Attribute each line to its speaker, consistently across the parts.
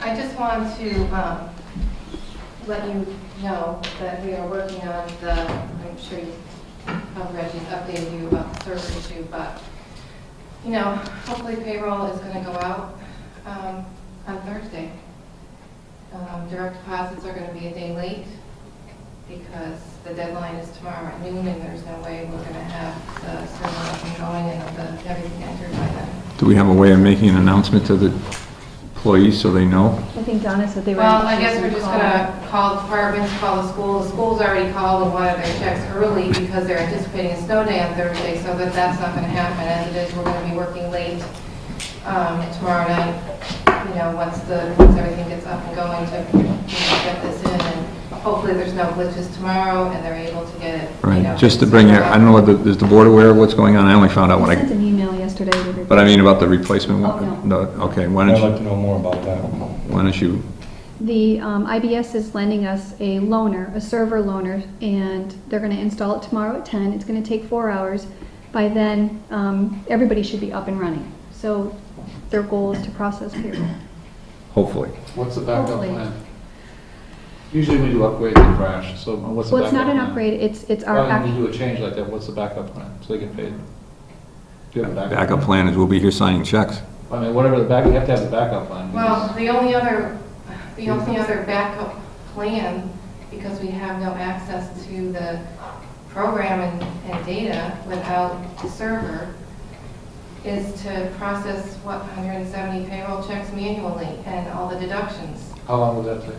Speaker 1: I just want to um, let you know that we are working on the, I'm sure you, uh, Reggie's updated you about the server issue, but, you know, hopefully payroll is going to go out um, on Thursday. Um, Direct deposits are going to be a day late because the deadline is tomorrow at noon and there's no way we're going to have the server up and going and the- everything entered by then.
Speaker 2: Do we have a way of making an announcement to the employees so they know?
Speaker 3: I think Donna said they were.
Speaker 1: Well, I guess we're just gonna call departments, call the school. The school's already called and wanted their checks early because they're anticipating a snow day on Thursday, so that that's not gonna happen. As it is, we're gonna be working late um, tomorrow night, you know, once the, once everything gets up and going to, you know, get this in. And hopefully there's no glitches tomorrow and they're able to get it, you know.
Speaker 2: Right, just to bring it, I don't know, whether- is the board aware of what's going on? I only found out
Speaker 3: I
Speaker 2: when
Speaker 3: sent
Speaker 2: I,
Speaker 3: an email yesterday to everybody.
Speaker 2: but I mean about the replacement
Speaker 3: Oh,
Speaker 2: one. No, okay, why
Speaker 4: I'd
Speaker 2: don't
Speaker 4: like
Speaker 2: you,
Speaker 4: to know more about that.
Speaker 2: why don't you,
Speaker 3: The um, IBS is lending us a loaner, a server loaner, and they're going to install it tomorrow at 10. It's going to take four hours. By then, um, everybody should be up and running. So their goal is to process payroll.
Speaker 2: hopefully.
Speaker 5: What's the backup
Speaker 3: Hopefully.
Speaker 5: plan? Usually we do upgrade and crash, so what's the
Speaker 3: Well, it's
Speaker 5: backup plan?
Speaker 3: not an upgrade, it's, it's our,
Speaker 5: Why when
Speaker 3: act-
Speaker 5: you do a change like that, what's the backup plan, so they get paid? Do you have a
Speaker 2: Backup plan is we'll be here signing checks.
Speaker 5: I mean, whatever the back, you have to have the backup plan.
Speaker 1: Well, the only other, the only other backup plan, because we have no access to the program and, and data without the server, is to process, what, 170 payroll checks manually and all the deductions.
Speaker 5: How long would that take?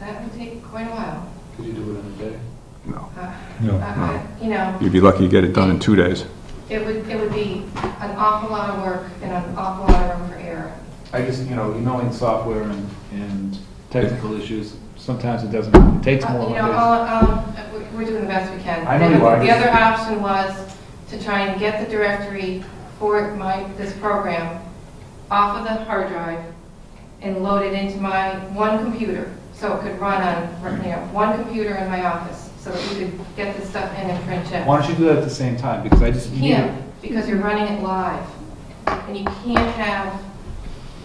Speaker 1: That would take quite a while.
Speaker 5: Could you do it in a day?
Speaker 2: No,
Speaker 1: Uh,
Speaker 4: No,
Speaker 1: uh, You know,
Speaker 2: you'd be lucky to get it done in two days.
Speaker 1: it would, it would be an awful lot of work and an awful lot of room for error.
Speaker 6: I just, you know, knowing software and, and technical issues, sometimes it doesn't, it takes
Speaker 1: Uh,
Speaker 6: more.
Speaker 1: You know,
Speaker 6: than-
Speaker 1: I'll- I'll- we- we're doing the best we can.
Speaker 6: I know you are.
Speaker 1: The other option was to try and get the directory for my, this program off of the hard drive and load it into my one computer, so it could run on, you know, one computer in my office, so that we could get this stuff in and print it.
Speaker 6: Why don't you do that at the same time, because I just.
Speaker 1: You can't, because you're running it live, and you can't have,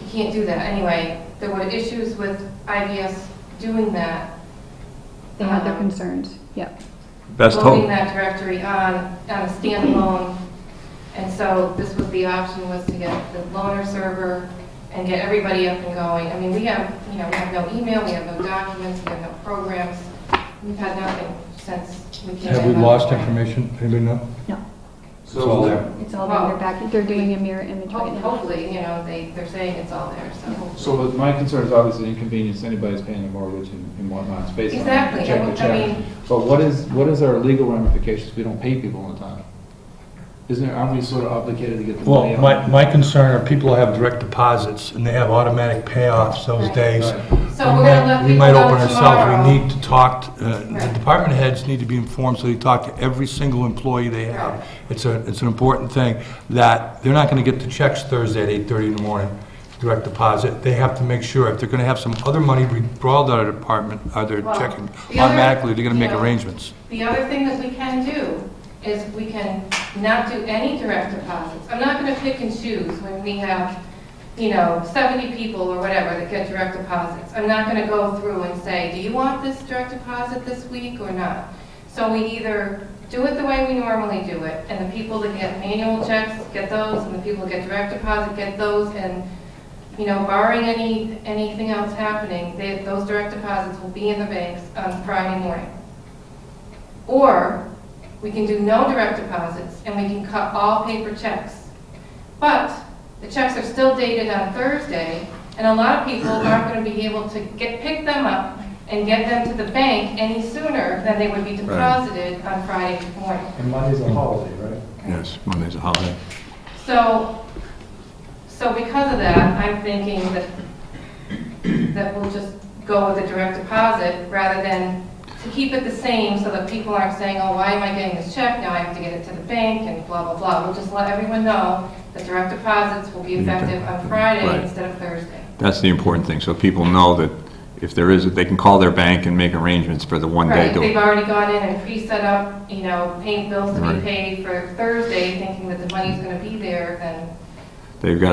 Speaker 1: you can't do that. Anyway, there were issues with IBS doing that.
Speaker 3: they had their
Speaker 1: Um,
Speaker 3: concerns, yep.
Speaker 2: Best
Speaker 1: loading
Speaker 2: hope.
Speaker 1: that directory on, on a standalone. And so this was the option, was to get the loaner server and get everybody up and going. I mean, we have, you know, we have no email, we have no documents, we have no programs. We've had nothing since we came in.
Speaker 4: Have we lost information? Anybody know?
Speaker 3: No,
Speaker 4: It's all there.
Speaker 3: it's all there, they're back, they're doing a mirror image right
Speaker 1: Ho-
Speaker 3: now.
Speaker 1: Hopefully, you know, they, they're saying it's all there, so.
Speaker 6: So but my concern is obviously inconvenience, anybody's paying their mortgage and and whatnot, it's based on.
Speaker 1: Exactly,
Speaker 6: check
Speaker 1: I
Speaker 6: to check.
Speaker 1: mean-
Speaker 6: But what is, what is our legal ramifications if we don't pay people on time? Isn't there, aren't we sort of obligated to get the money
Speaker 7: Well,
Speaker 6: out?
Speaker 7: my, my concern are people have direct deposits and they have automatic payoffs those
Speaker 1: Right.
Speaker 7: days.
Speaker 1: So we're gonna let
Speaker 7: We might
Speaker 1: people know
Speaker 7: open ourselves,
Speaker 1: tomorrow.
Speaker 7: we need to talk, to- uh, the
Speaker 1: Right.
Speaker 7: department heads need to be informed, so they talk to every single employee they
Speaker 1: Right.
Speaker 7: have. It's a, it's an important thing, that they're not gonna get the checks Thursday at 8:30 in the morning, direct deposit. They have to make sure, if they're gonna have some other money withdrawn out of the department, out of their
Speaker 1: Well,
Speaker 7: checking,
Speaker 1: the other-
Speaker 7: automatically, they're gonna make
Speaker 1: you know,
Speaker 7: arrangements.
Speaker 1: The other thing that we can do is we can not do any direct deposits. I'm not going to pick and choose when we have, you know, 70 people or whatever that get direct deposits. I'm not going to go through and say, do you want this direct deposit this week or not? So we either do it the way we normally do it, and the people that get manual checks get those, and the people that get direct deposit get those, and, you know, barring any, anything else happening, they- those direct deposits will be in the banks on Friday morning. Or we can do no direct deposits and we can cut all paper checks. But the checks are still dated on Thursday and a lot of people aren't going to be able to get, pick them up and get them to the bank any sooner than they would be deposited on Friday morning.
Speaker 4: And Monday's a holiday, right?
Speaker 2: Yes, Monday's a holiday.
Speaker 1: So, so because of that, I'm thinking that, that we'll just go with a direct deposit rather than to keep it the same so that people aren't saying, oh, why am I getting this check? Now I have to get it to the bank and blah, blah, blah. We'll just let everyone know that direct deposits will be effective on
Speaker 2: Right.
Speaker 1: Friday instead of Thursday.
Speaker 2: That's the important thing, so people know that if there is, they can call their bank and make arrangements for the one day.
Speaker 1: Right,
Speaker 2: to-
Speaker 1: they've already gone in and pre-set up, you know, paying bills to be
Speaker 2: Right.
Speaker 1: paid for Thursday, thinking that the money's going to be there, then
Speaker 2: They've got